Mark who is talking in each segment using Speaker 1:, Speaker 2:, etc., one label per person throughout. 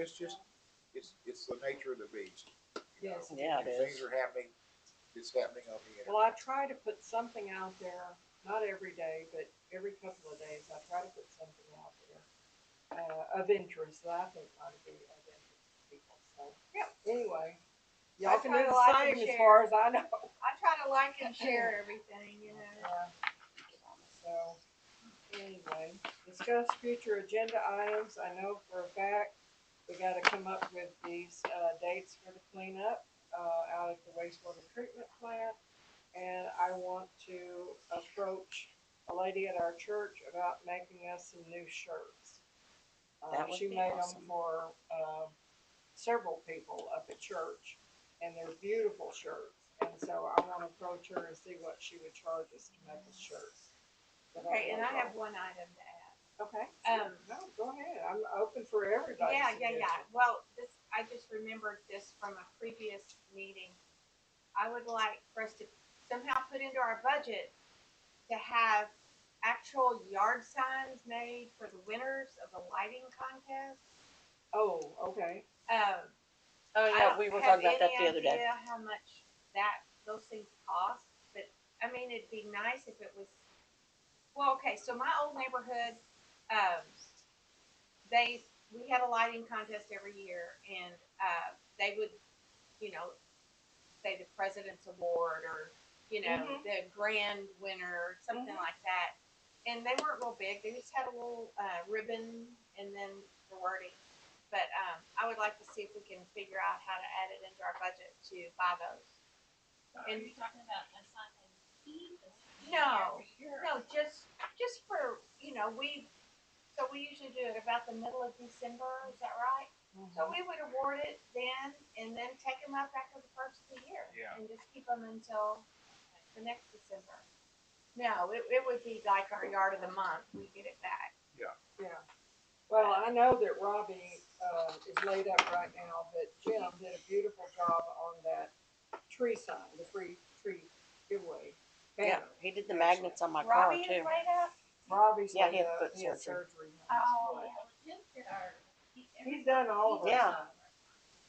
Speaker 1: it's just, it's, it's the nature of the beast. you know.
Speaker 2: Yes.
Speaker 3: Yeah, it
Speaker 1: If Things
Speaker 3: is.
Speaker 1: are happening, it's happening on the
Speaker 2: Well, I
Speaker 1: internet.
Speaker 2: try to put something out there, not every day, but every couple of days, I try to put something out there uh, of interest that I think ought to be of interest to people. So,
Speaker 4: Yep.
Speaker 2: anyway, y'all
Speaker 4: I
Speaker 2: can
Speaker 4: try
Speaker 2: do
Speaker 4: to
Speaker 2: the
Speaker 4: like
Speaker 2: same
Speaker 4: and
Speaker 2: as
Speaker 4: share.
Speaker 2: far as I know.
Speaker 4: I try to like and share everything, you know.
Speaker 2: Yeah. So, anyway, discuss future agenda items. I know for a fact, we gotta come up with these, uh, dates for the cleanup, uh, out at the wastewater treatment plant. And I want to approach a lady at our church about making us some new shirts. Uh,
Speaker 3: That would
Speaker 2: she
Speaker 3: be
Speaker 2: made 'em
Speaker 3: awesome.
Speaker 2: For, uh, several people up at church and they're beautiful shirts. And so I wanna approach her and see what she would charge us to make us shirts. But I
Speaker 4: Okay, and I
Speaker 2: don't know.
Speaker 4: have one item to add.
Speaker 2: Okay.
Speaker 4: Um,
Speaker 2: No, go ahead. I'm open for everybody.
Speaker 4: Yeah, yeah, yeah. Well, this, I just remembered this from a previous meeting. I would like for us to somehow put into our budget to have actual yard signs made for the winners of the lighting contest.
Speaker 2: Oh, okay.
Speaker 4: Um,
Speaker 3: Oh,
Speaker 4: I
Speaker 3: yeah,
Speaker 4: don't
Speaker 3: we were
Speaker 4: have
Speaker 3: talking about that
Speaker 4: any
Speaker 3: the other day.
Speaker 4: idea How much that, those things cost, but, I mean, it'd be nice if it was, well, okay, so my old neighborhood, um, they, we had a lighting contest every year and, uh, they would, you know, say the president's award or, you know,
Speaker 2: Mhm.
Speaker 3: Mm-hmm.
Speaker 4: the grand winner, something
Speaker 2: Mhm.
Speaker 4: like that. And they weren't real big, they just had a little, uh, ribbon and then the wording. But um, I would like to see if we can figure out how to add it into our budget to buy those.
Speaker 5: Are you talking about a sign and key?
Speaker 4: No, No, just just for you know we. So we usually do it about the middle of December. Is that right? So we would award it then, and then take them up after the first of the year,
Speaker 1: Yeah.
Speaker 4: and just keep them until the next December. No, it, it would be like our yard of the month. We get it back.
Speaker 2: Mm-hmm. Yeah. Well, I know that Robbie, uh, is laid up right now, but Jim did a beautiful job on that tree sign, the free tree giveaway.
Speaker 3: Yeah,
Speaker 2: banner.
Speaker 3: he did the magnets on my car
Speaker 4: Robbie
Speaker 3: too.
Speaker 4: is laid up.
Speaker 2: Robbie's
Speaker 3: Yeah,
Speaker 2: laid
Speaker 3: he had
Speaker 2: up,
Speaker 3: foot
Speaker 2: he had
Speaker 3: surgery.
Speaker 2: surgery.
Speaker 4: Oh,
Speaker 5: Well, Jim did our- he-
Speaker 2: He's done all of our
Speaker 3: Yeah.
Speaker 2: signs.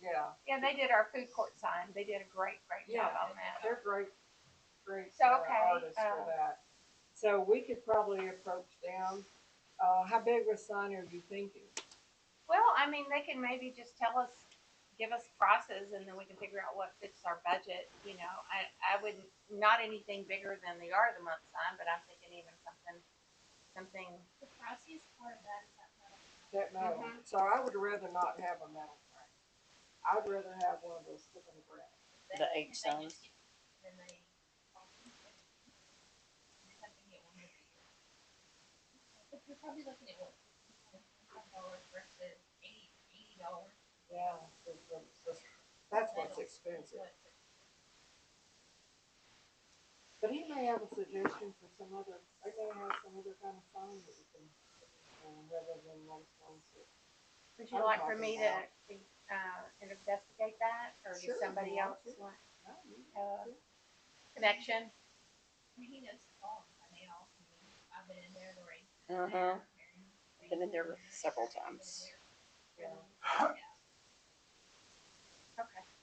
Speaker 2: Yeah,
Speaker 4: Yeah, they did our food court sign. They did a great, great job
Speaker 2: Yeah.
Speaker 4: on that.
Speaker 2: they're great, great
Speaker 4: So,
Speaker 2: uh,
Speaker 4: okay,
Speaker 2: artists
Speaker 4: uh,
Speaker 2: for that. So we could probably approach them. Uh, how big of a sign are you thinking?
Speaker 4: Well, I mean, they can maybe just tell us, give us prices, and then we can figure out what fits our budget. You know, I, I would not anything bigger than the yard of the month sign, but I'm thinking even something, something.
Speaker 5: The priciest part of that is that metal.
Speaker 2: That metal,
Speaker 4: Mm-hmm.
Speaker 2: so I would rather not have a metal frame. I'd rather have one of those stick in the ground.
Speaker 5: They-
Speaker 3: The
Speaker 5: if
Speaker 3: eight
Speaker 5: they just
Speaker 3: signs.
Speaker 5: get- Then they. they have to get one every year. But you're probably looking at what, five dollars versus eighty, eighty dollars.
Speaker 2: Yeah. That's what's expensive, but he may have a suggestion for some other, they may have some other kind of sign that we can, um, rather than those ones that.
Speaker 4: Would you
Speaker 2: I'm
Speaker 4: like for me
Speaker 2: talking
Speaker 4: to, uh, investigate that, or
Speaker 2: Sure, if
Speaker 4: does somebody
Speaker 2: you want
Speaker 4: else
Speaker 2: to.
Speaker 4: want
Speaker 2: No, you-
Speaker 4: uh,
Speaker 5: I
Speaker 4: connection?
Speaker 5: mean, he knows the songs, I mean, all, I've been in there, Lori.
Speaker 3: Uh-huh. Been in there several times.
Speaker 2: Yeah.
Speaker 4: Okay.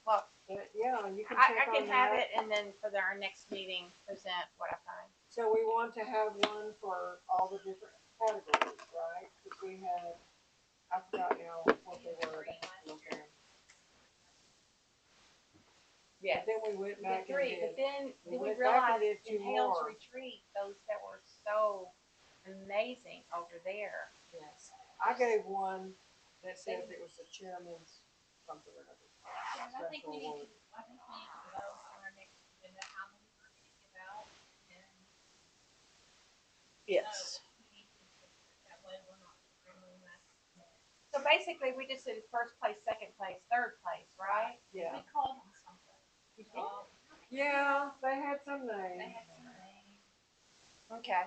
Speaker 4: Well,
Speaker 2: But yeah, you can
Speaker 4: I,
Speaker 2: check
Speaker 4: I
Speaker 2: on
Speaker 4: can have
Speaker 2: that.
Speaker 4: it, and then for the- our next meeting, present what I find.
Speaker 2: So we want to have one for all the different categories, right? Cause we had, I forgot now what they were, I have to look at 'em.
Speaker 4: Yes.
Speaker 2: But Then we went
Speaker 4: The
Speaker 2: back and
Speaker 4: three, but
Speaker 2: did,
Speaker 4: then,
Speaker 2: We
Speaker 4: then we
Speaker 2: went back and did
Speaker 4: realized
Speaker 2: two
Speaker 4: in Hales
Speaker 2: more.
Speaker 4: Retreat, those that were so amazing over there.
Speaker 2: yes. I gave one that says it was the chairman's something or other.
Speaker 5: Yeah, I think we need to, I think we need to vote on our next agenda, how many we're gonna give out, and.
Speaker 3: Yes.
Speaker 5: vote. We need to- That way we're not scrambling that.
Speaker 4: So basically, we just did first place, second place, third place, right?
Speaker 2: Yeah.
Speaker 5: We called them something.
Speaker 4: You did?
Speaker 5: Well,
Speaker 2: Yeah, they had some
Speaker 5: They
Speaker 2: names.
Speaker 5: had some names.
Speaker 4: Okay,
Speaker 5: I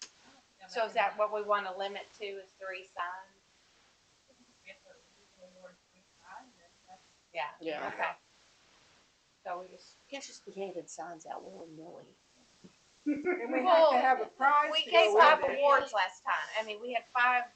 Speaker 5: don't think I
Speaker 4: so is that
Speaker 5: remember.
Speaker 4: what we wanna limit to is three signs?
Speaker 5: If it was award three times, then that's
Speaker 4: Yeah.
Speaker 3: Yeah.
Speaker 4: Okay. So we just,
Speaker 3: Can't just be handing signs out willy-nilly.
Speaker 2: And we had to have a prize
Speaker 4: we
Speaker 2: to
Speaker 4: gave
Speaker 2: go
Speaker 4: five
Speaker 2: with it.
Speaker 4: awards last time. I mean, we had five